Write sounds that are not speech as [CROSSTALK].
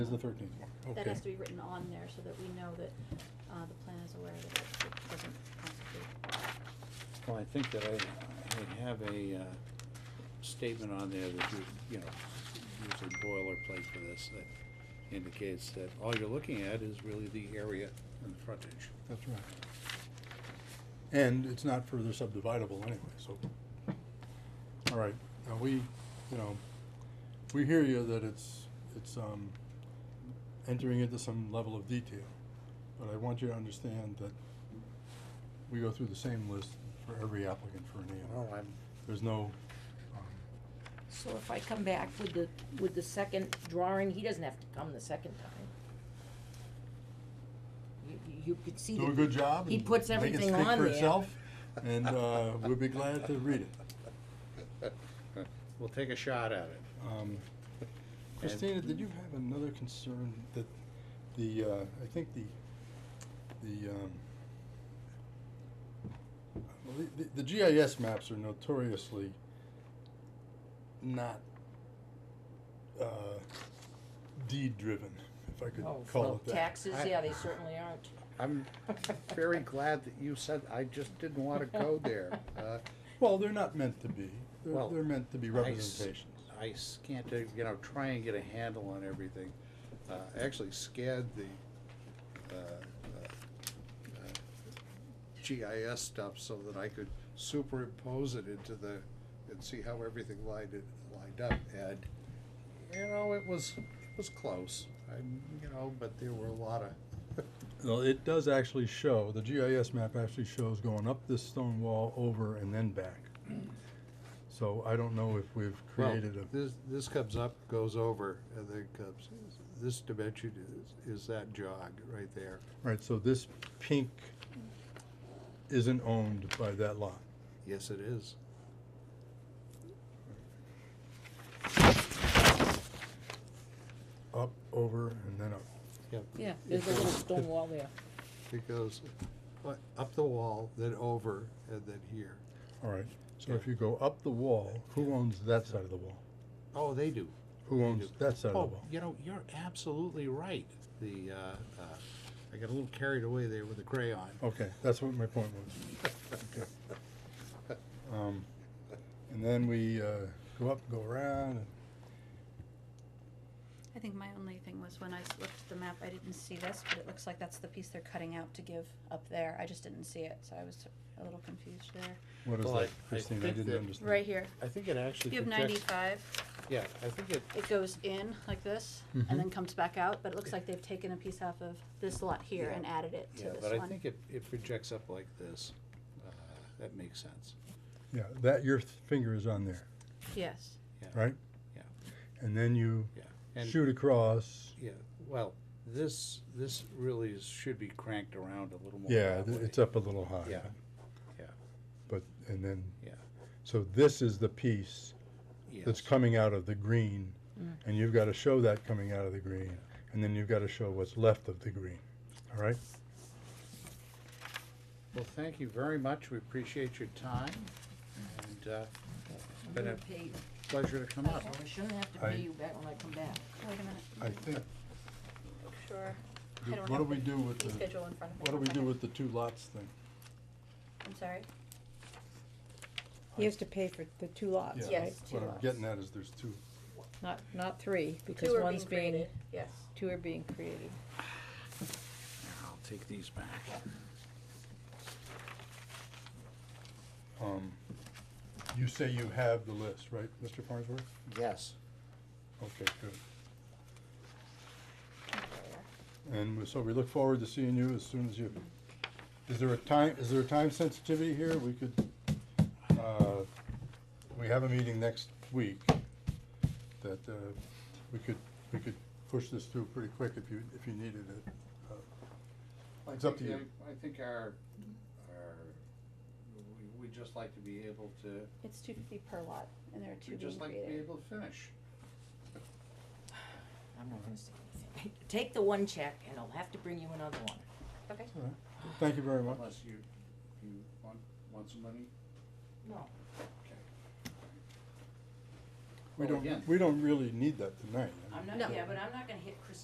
Is the thirteenth one, That okay. has to be written on there so that we know that, uh, the plan is aware that it- it doesn't constitute. Well, I think that I, I have a, uh, statement on there that you, you know, usually boilerplate for this, that indicates that all you're looking at is really the area and the frontage. That's right. And it's not further subdividable anyway, so. All right, now we, you know, we hear you that it's, it's, um, entering into some level of detail. But I want you to understand that we go through the same list for every applicant for an A and Well, R. Oh, I'm, There's no, um, So if I come back with the, with the second drawing, he doesn't have to come the second time. You, you could see do a that- good job. He and puts make it everything speak on for there. itself, And, uh, we'll be glad to read it. [LAUGHS] we'll take a shot at it. Um, And- Christina, did you have another concern that the, uh, I think the, the, um, well, the- the, the GIS maps are notoriously not, uh, deed-driven, if I could Oh, call well, it that. Taxes, I- yeah, they certainly aren't. [LAUGHS] I'm very glad that you said, I just didn't wanna go [LAUGHS] there. Uh, Well, they're not meant to be. They're, Well, they're meant to be I s- representations. I s- can't, uh, you know, try and get a handle on everything. Uh, actually scared the, uh, uh, uh, GIS stuff so that I could superimpose it into the, and see how everything lined, it, lined up. And, you know, it was, it was close, I, you know, but there were a lot of, Well, it does actually show, the GIS map actually shows going up this stone wall over and then back. So I don't know if we've Well, created a, This, this comes up, goes over, and then comes, this dimension is, is that jog right there. right, so this pink isn't owned by that lot. Yes, it is. Up, over, and then up. Yep. Yeah, there's a little stone wall there. It goes uh, up the wall, then over, and then here. All right, so if you go up the wall, who owns that side of the wall? Oh, they do. Who owns that side of the Oh, wall? you know, you're absolutely right. The, uh, uh, I got a little carried away there with the crayon. Okay, that's what my point was. Okay. Um, And then we, uh, go up, go around, and I think my only thing was when I s- looked at the map, I didn't see this, but it looks like that's the piece they're cutting out to give up there. I just didn't see it, so I was a little confused there. what is Well, I- that, I Christine? I think didn't that- understand. Right here, I think it actually you have ninety-five, Yeah, I think it, it goes in like this Mhm. and then comes back out, but it looks like they've taken a piece off of this lot here Yeah. and added it to yeah, this one. but I think it, it projects up like this. Uh, That makes sense. Yeah, that, your th- finger is on there, Yes, right? Yeah. And then you Yeah. And- shoot across, Yeah, well, this, this really is, should be cranked around a little more. yeah, that th- way. it's up a little high. Yeah, But, and then, Yeah. so this is the piece that's yes. coming out of the green, Mm. and you've gotta show that coming out of the green, and then you've gotta show what's left of the green, all right? Well, thank you very much. We appreciate your time. And uh, it's been I'm a gonna pay you. pleasure to come So up. I shouldn't have to I- pay you back when I come back. wait a minute, I think, sure. I Do- don't what have do we the do with fee the- Schedule in front of me. what do One we do second. with the two lots thing? I'm sorry, He has to pay for the two lots, Yeah, right? Uh, Yes. two What I'm lots. getting at is there's two, Not, not three, because two are being one's being, created, yes. two are being created. I'll take these back. um, you say you have the list, right, Mr. Farnsworth? Yes. Okay, good. And we- so we look forward to seeing you as soon as you, is there a time, is there a time sensitivity here? We could, uh, we have a meeting next week that, uh, we could, we could push this through pretty quick if you, if you needed it. I It's up think to you. the- I think our, our, we- we'd just like to be able to, It's two fifty per lot, and there are two we'd being just like to be created. able to finish. I'm not gonna say anything. Take the one check and I'll have to bring you another one. Okay, All right. Thank you very much. Unless you, you want, want some money? No. Okay. We Well, again- don't, we don't really need that tonight. I mean- I'm No. not, yeah, but I'm not gonna hit Chris